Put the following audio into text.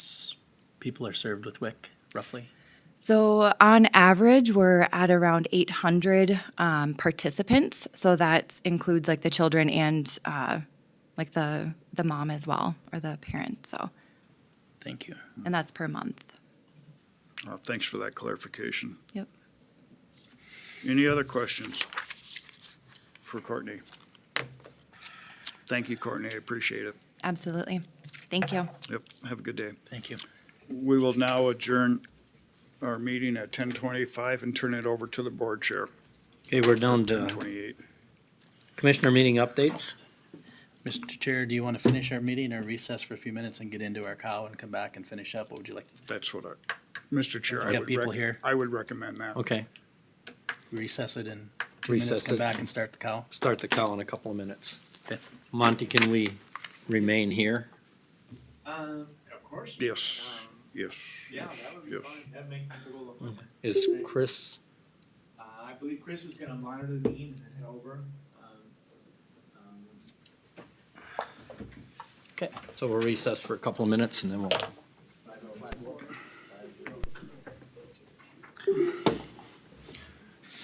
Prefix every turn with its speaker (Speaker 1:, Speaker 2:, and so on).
Speaker 1: people are served with WIC, roughly?
Speaker 2: So, on average, we're at around 800 um, participants. So that includes like the children and uh, like the the mom as well or the parent. So,
Speaker 1: Thank you.
Speaker 2: and that's per month.
Speaker 3: Uh, Thanks for that clarification.
Speaker 2: Yep.
Speaker 3: Any other questions for Courtney? Thank you, Courtney. I appreciate it.
Speaker 2: Absolutely. Thank you.
Speaker 3: Yep, have a good day.
Speaker 1: Thank you.
Speaker 3: We will now adjourn our meeting at ten twenty-five and turn it over to the board chair,
Speaker 4: Okay, we're down
Speaker 3: ten
Speaker 4: to
Speaker 3: twenty-eight.
Speaker 4: commissioner meeting updates.
Speaker 1: Mr. Chair, do you want to finish our meeting or recess for a few minutes and get into our cow and come back and finish up? What would you like?
Speaker 3: That's what I, Mr. Chair,
Speaker 1: We
Speaker 3: I
Speaker 1: got
Speaker 3: would,
Speaker 1: people
Speaker 3: rec-
Speaker 1: here.
Speaker 3: I would recommend that.
Speaker 4: Okay,
Speaker 1: Recess it in two minutes,
Speaker 4: Recess
Speaker 1: come
Speaker 4: it.
Speaker 1: back and start the cow?
Speaker 4: start the call in a couple of minutes.
Speaker 1: Okay.
Speaker 4: Monty, can we remain here?
Speaker 5: Um, of course.
Speaker 3: Yes, yes.
Speaker 5: Yeah, that would be
Speaker 3: Yes.
Speaker 5: fine. That makes a little appointment.
Speaker 4: Is Chris,
Speaker 5: Uh, I believe Chris was gonna monitor the meeting and then head over. Um, um,
Speaker 4: so we'll recess for a couple of minutes and then we'll